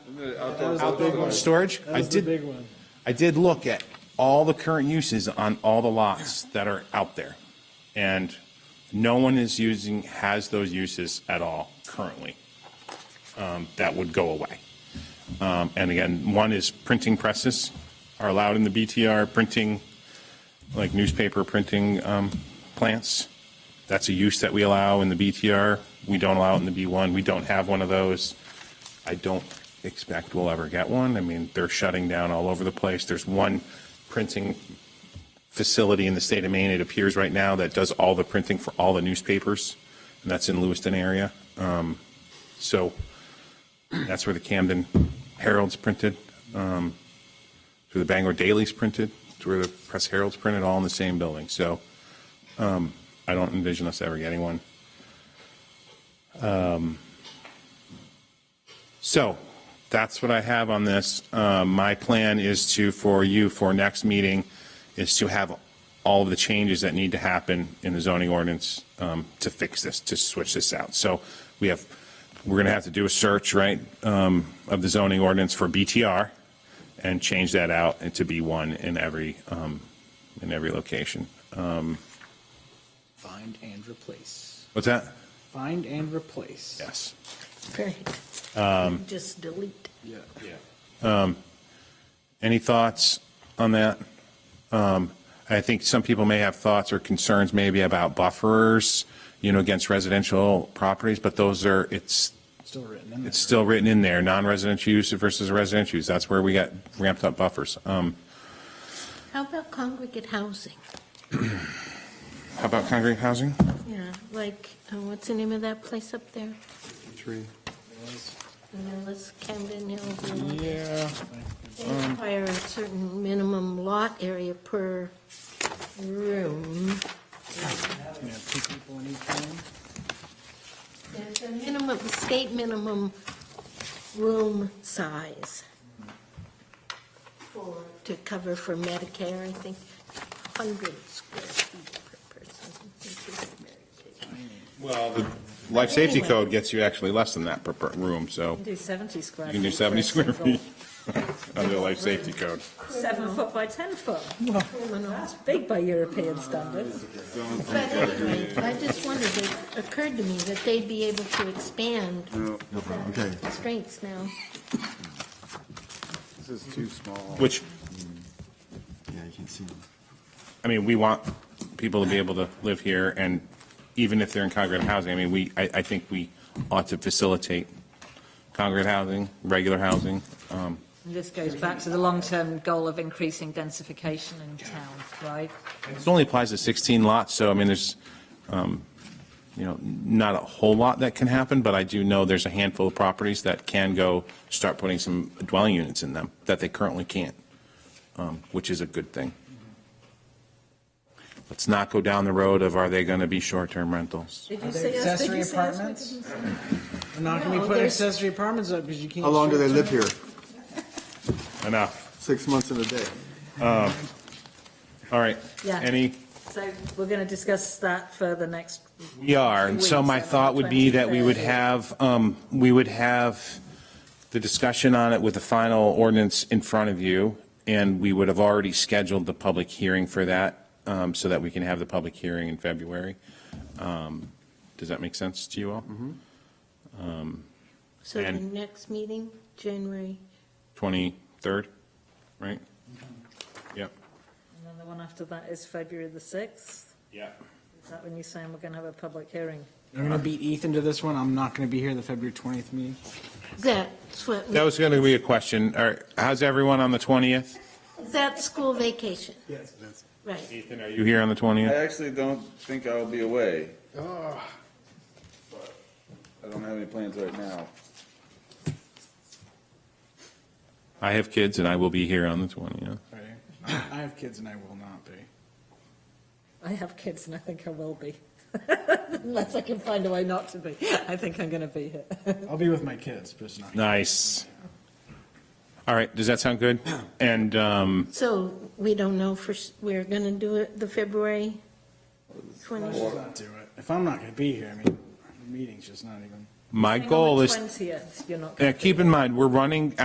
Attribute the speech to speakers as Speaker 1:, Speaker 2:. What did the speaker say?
Speaker 1: the
Speaker 2: was
Speaker 1: outdoor.
Speaker 2: the big one.
Speaker 3: Storage?
Speaker 2: That
Speaker 3: I
Speaker 2: was the
Speaker 3: did,
Speaker 2: big one.
Speaker 3: I did look at all the current uses on all the lots that are out there. And no one is using, has those uses at all currently. Um, That would go away. Um, And again, one is printing presses are allowed in the BTR, printing, like newspaper printing um, plants. That's a use that we allow in the BTR. We don't allow it in the B1. We don't have one of those. I don't expect we'll ever get one. I mean, they're shutting down all over the place. There's one printing facility in the state of Maine, it appears right now, that does all the printing for all the newspapers, and that's in Lewiston area. Um, So that's where the Camden Herald's printed, um, it's where the Bangor Daily's printed, it's where the Press Herald's printed, all in the same building. So um, I don't envision us ever getting one. So that's what I have on this. Uh, My plan is to, for you, for next meeting, is to have all of the changes that need to happen in the zoning ordinance um, to fix this, to switch this out. So we have, we're going to have to do a search, right, um, of the zoning ordinance for BTR and change that out and to be one in every, um, in every location. Um,
Speaker 2: Find and replace.
Speaker 3: What's that?
Speaker 2: Find and replace.
Speaker 3: Yes.
Speaker 4: Right. Just delete.
Speaker 3: Any thoughts on that? Um, I think some people may have thoughts or concerns maybe about buffers, you know, against residential properties, but those are, it's,
Speaker 2: Still written in there.
Speaker 3: it's still written in there, non-residential use versus residential use. That's where we got ramped up buffers. Um,
Speaker 4: How about congregate housing?
Speaker 3: How about congregate housing?
Speaker 4: Yeah, like, uh, what's the name of that place up there? Millis, Camden Hill.
Speaker 3: Yeah.
Speaker 4: They require a certain minimum lot area per room.
Speaker 2: You know, two people in each room.
Speaker 4: There's a minimum, state minimum room size for, to cover for Medicare, I think, 100 square feet per person.
Speaker 3: Well, the life safety code gets you actually less than that per, per room, so
Speaker 5: Do 70 square.
Speaker 3: you can do
Speaker 5: feet for
Speaker 3: 70
Speaker 5: a
Speaker 3: square
Speaker 5: single
Speaker 3: feet under the life safety code.
Speaker 5: Seven foot by 10 foot.
Speaker 4: Criminal.
Speaker 5: That's big by European standards.
Speaker 4: But anyway, I just wondered, it occurred to me that they'd be able to expand
Speaker 6: No problem, okay.
Speaker 4: constraints now.
Speaker 1: This is too small.
Speaker 3: Which,
Speaker 6: Yeah, you can see them.
Speaker 3: I mean, we want people to be able to live here, and even if they're in congregate housing, I mean, we, I, I think we ought to facilitate congregate housing, regular housing. Um,
Speaker 5: And this goes back to the long-term goal of increasing densification in town, right?
Speaker 3: This only applies to 16 lots, so I mean, there's, um, you know, not a whole lot that can happen, but I do know there's a handful of properties that can go start putting some dwelling units in them that they currently can't, um, which is a good thing. Let's not go down the road of are they going to be short-term rentals?
Speaker 5: Did
Speaker 2: Are
Speaker 5: you
Speaker 2: there
Speaker 5: say yes? Did
Speaker 2: accessory
Speaker 5: you say yes?
Speaker 2: apartments? They're not going to be putting
Speaker 5: there's-
Speaker 2: accessory apartments up because you can't.
Speaker 6: How long do they live
Speaker 2: short-term-
Speaker 6: here?
Speaker 3: Enough.
Speaker 6: Six months and a day.
Speaker 3: All right.
Speaker 5: Yeah.
Speaker 3: Any,
Speaker 5: So we're going to discuss that further next.
Speaker 3: we are, and so my thought would be that we would have, um, we would have the discussion on it with the final ordinance in front of you, and we would have already scheduled the public hearing for that, um, so that we can have the public hearing in February. Um, Does that make sense to you all?
Speaker 4: So the
Speaker 3: And-
Speaker 4: next meeting, January,
Speaker 3: 23rd, right? Yep.
Speaker 5: And then the one after that is February the 6th.
Speaker 3: Yeah.
Speaker 5: Is that when you're saying we're going to have a public hearing?
Speaker 2: I'm going to beat Ethan to this one. I'm not going to be here the February 20th meeting.
Speaker 4: that's what,
Speaker 3: That was going to be a question. All right, how's everyone on the 20th?
Speaker 4: that's school vacation,
Speaker 2: Yes.
Speaker 4: right.
Speaker 3: Ethan, are you here on the 20th?
Speaker 1: I actually don't think I'll be away. I don't have any plans right now.
Speaker 3: I have kids and I will be here on the 20th.
Speaker 2: I have kids and I will not be.
Speaker 5: I have kids and I think I will be. Unless I can find a way not to be. I think I'm going to be here.
Speaker 2: I'll be with my kids, but it's not.
Speaker 3: Nice. All right, does that sound good? And um,
Speaker 4: So we don't know for, s- we're going to do it the February
Speaker 2: Let's
Speaker 4: 20th.
Speaker 2: just not do it. If I'm not going to be here, I mean, the meeting's just not even.
Speaker 3: my goal is,
Speaker 5: Twentieth, you're not.
Speaker 3: Yeah, keep in mind, we're running